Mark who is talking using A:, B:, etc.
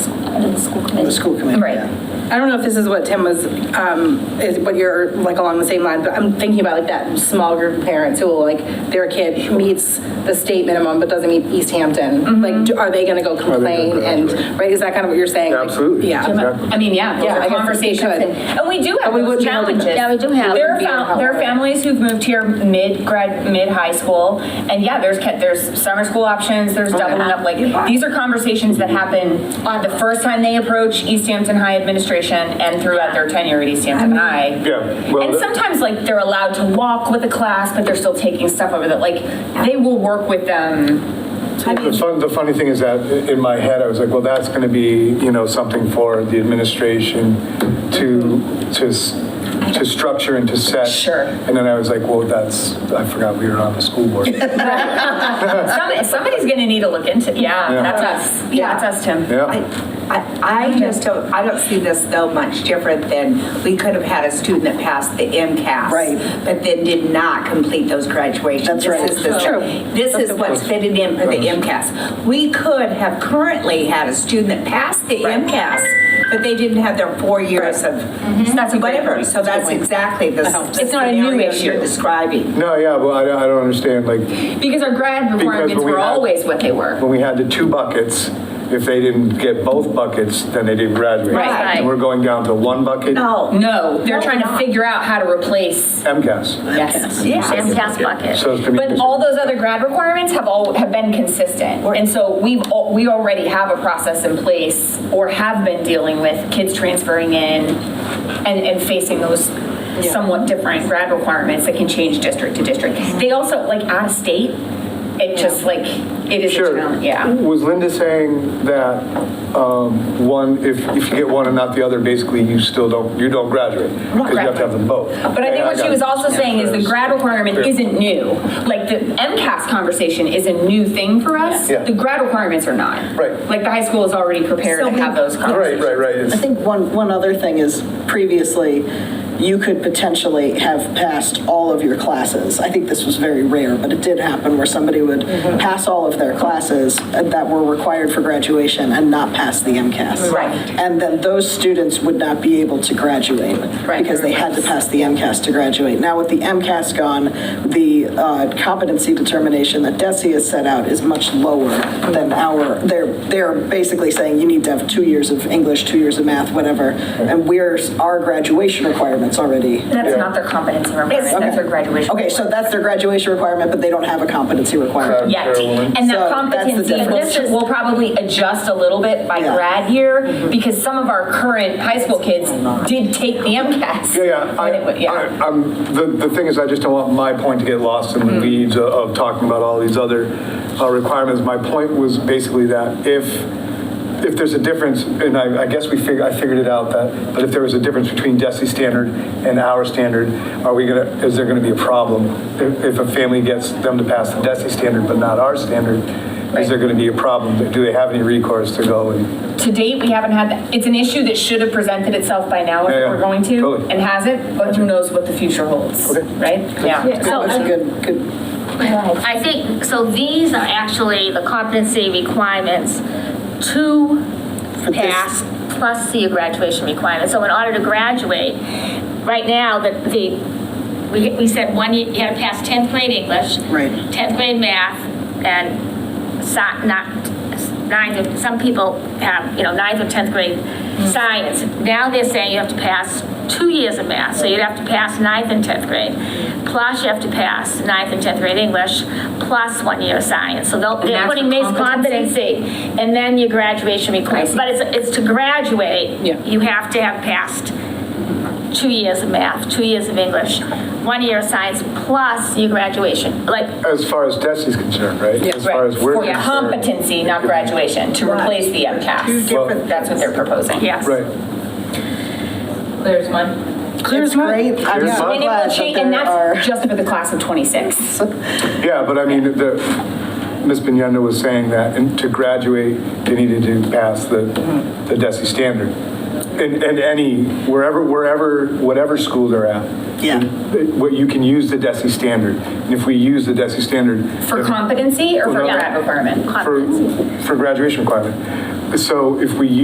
A: Well, the school committee.
B: Right.
A: yeah.
C: I don't know if this is what Tim was, um, is what you're like along the same lines, but I'm thinking about like that small group of parents who will like, their kid meets the state minimum but doesn't meet East Hampton. Like, do- are they gonna go complain and, right, is that kind of what you're saying? Like,
D: Absolutely,
C: Yeah.
D: exactly.
B: I mean, yeah, those
C: Yeah, I
B: are
C: guess we
B: conversations,
C: could.
B: and and we do have
C: And we would
B: those
C: be able to-
B: challenges.
E: yeah, we do have-
C: We'd
B: There are,
C: be able to
B: fam-
C: help
B: there are
C: with it.
B: families who've moved here mid-grad, mid-high school, and yeah, there's, ca- there's summer school options, there's doubling up, like, these are conversations that happen on the first time they approach East Hampton High administration and throughout their tenure at East Hampton High.
D: Yeah, well,
B: And
D: the-
B: sometimes, like, they're allowed to walk with a class, but they're still taking stuff over that, like, they will work with them.
D: The fun, the funny thing is that i- in my head, I was like, well, that's going to be, you know, something for the administration to, to, s- to structure and to set.
B: Sure.
D: And then I was like, well, that's, I forgot we were on the school board. Yeah,
B: Some- Somebody's gonna need to look into, yeah,
D: Yeah.
B: that's us, yeah, that's us, Tim.
F: I, I just don't, I don't see this though much different than, we could have had a student that passed the MCAS.
A: Right.
F: But then did not complete those graduations.
A: That's
F: This
A: right.
F: is the-
C: True.
F: This is what's fitted in for the MCAS. We could have currently had a student that passed the MCAS, but they didn't have their four years of
B: Mm-hmm. That's a great
F: whatever.
B: point.
F: So that's exactly the s- the
B: It's not a new
F: scenario
B: issue.
F: you're describing.
D: no, yeah, well, I don't, I don't understand, like,
B: Because our grad requirements
D: when we
B: were
D: had-
B: always what they were.
D: when we had the two buckets, if they didn't get both buckets, then they didn't graduate.
B: Right.
D: And we're going down to one bucket,
F: No.
B: No, they're
F: No,
B: trying to
F: not.
B: figure out how to replace.
D: MCAS.
B: Yes.
E: Sam Cast Bucket.
D: So it's going to be.
B: But all those other grad requirements have all, have been consistent. And so we've, al- we already have a process in place or have been dealing with kids transferring in and, and facing those somewhat different grad requirements that can change district to district. They also, like out of state, it just like, it is a
D: Sure.
B: challenge, yeah.
D: Was Linda saying that um, one, if, if you get one and not the other, basically you still don't, you don't graduate? Because you have to have them both.
B: But I think what she was also saying is the grad requirement isn't new. Like the MCAS conversation is a new thing for us.
D: Yeah.
B: The grad requirements are not.
D: Right.
B: Like the high school is already prepared
F: So
B: to
F: we-
B: have those
D: Right,
B: conversations.
D: right, right.
A: I
D: It's-
A: think one, one other thing is previously, you could potentially have passed all of your classes. I think this was very rare, but it did happen where somebody would pass all of their classes uh, that were required for graduation and not pass the MCAS.
B: Right.
A: And then those students would not be able to graduate
B: Right.
A: because they had to pass the MCAS to graduate. Now with the MCAS gone, the uh, competency determination that DESI has set out is much lower than our, they're, they're basically saying you need to have two years of English, two years of math, whatever, and we're, our graduation requirement's already.
B: That's not their competency requirement, that's their graduation.
A: Okay, so that's their graduation requirement, but they don't have a competency requirement.
B: Yet,
D: Carolyn.
B: and
A: So
B: that
A: that's the
B: competency,
A: difference.
B: this is, we'll probably adjust a little bit by
A: Yeah.
B: grad year
D: Mm-hmm.
B: because some of our current high school kids did take the MCAS.
D: Yeah, yeah.
B: When it wa-
D: I-
B: Yeah.
D: I- I'm, the, the thing is, I just don't want my point to get lost in the
B: Mm-hmm.
D: weeds of- of talking about all these other uh, requirements. My point was basically that if, if there's a difference, and I, I guess we figured, I figured it out that, but if there was a difference between DESI standard and our standard, are we gonna, is there gonna be a problem? If, if a family gets them to pass the DESI standard but not our standard, is there gonna be a problem? Do they have any recourse to go and?
B: To date, we haven't had, that. it's an issue that should have presented itself by now if
D: Yeah, yeah,
B: we're going to,
D: totally.
B: and hasn't, but who knows what the future holds, right? Yeah.
E: So
A: That's a
E: I-
A: good, good
E: I think, so these are actually the competency requirements to pass plus the graduation requirement. So in order to graduate, right now, the, the, we, we said one, year- you had to pass 10th grade English.
A: Right.
E: 10th grade math and si, not, ninth, or- some people have, you know, ninth or 10th grade science. Now they're saying you have to pass two years of math, so you'd have to pass ninth and 10th grade. Plus you have to pass ninth and 10th grade English, plus one year of science. So they'll- they're
B: that's
E: putting
B: the
E: these competency. And then your graduation requirements. But it's, it's to graduate, you have to have passed two years of math, two years of English, one year of science, plus your graduation. Like,
D: As far as DESI's concerned, right? As far
B: Right,
D: as we're
B: for
D: concerned.
B: competency, not graduation, to replace the MCAS.
D: different
B: That's what they're proposing.
E: yes.
D: Right.
B: There's one.
A: It's great. I'm
D: Clear's
A: so
D: mine.
B: And it will
A: glad that
B: change, and
A: there are.
B: that's just for the class of 26.
D: Yeah, but I mean, the, Ms. Bignetta was saying that in- to graduate, they needed to pass the, the DESI standard. And, and any, wherever, wherever, whatever school they're at.
A: Yeah.
D: it- What, you can use the DESI standard. And if we use the DESI standard.
B: For
D: if-
B: competency or for
D: Well, no.
B: grad requirement?
D: For, for graduation requirement. So if we